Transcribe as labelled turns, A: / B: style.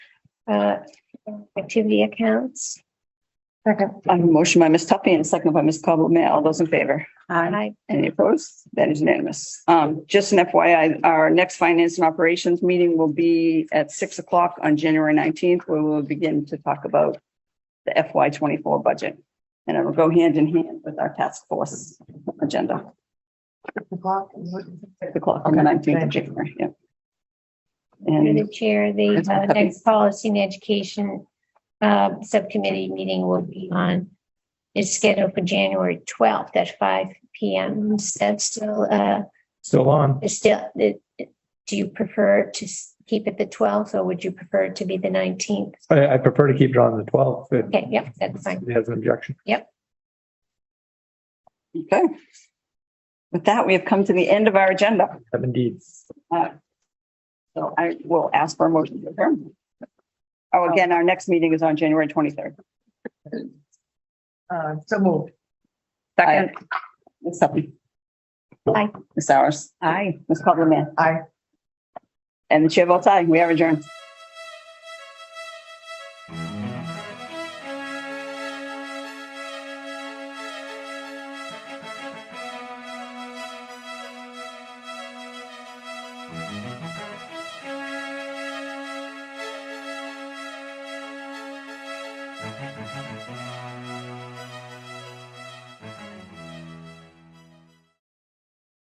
A: uh, activity accounts.
B: Second. I have a motion by Ms. Tuppy and a second by Ms. Cobble May. All those in favor?
A: I,
B: Any opposed? That is unanimous. Um, just an FYI, our next finance and operations meeting will be at six o'clock on January nineteenth, where we'll begin to talk about the FY twenty-four budget. And it will go hand in hand with our task force agenda. Six o'clock on the nineteenth of January, yeah.
A: through
B: And
A: the chair, the
B: It's
A: uh,
B: okay.
A: next policy and education uh, subcommittee meeting will be on, is scheduled for January twelfth at five P M. Is that still, uh,
C: Still on.
A: is still, it- it- do you prefer to s- keep it the twelfth or would you prefer it to be the nineteenth?
C: I, I prefer to keep it on the twelfth. It
A: Okay, yep, that's fine.
C: has an objection.
B: Okay. With that, we have come to the end of our agenda.
C: Seven deeds.
B: Uh, So I will ask for a motion to adjourn. Oh, again, our next meeting is on January twenty-third.
D: Uh, so moved.
B: Second. Ms. Sutton.
A: Aye.
B: Ms. Sowers. Aye. Ms. Copeland.
D: Aye.
B: And the chair votes aye. We are adjourned.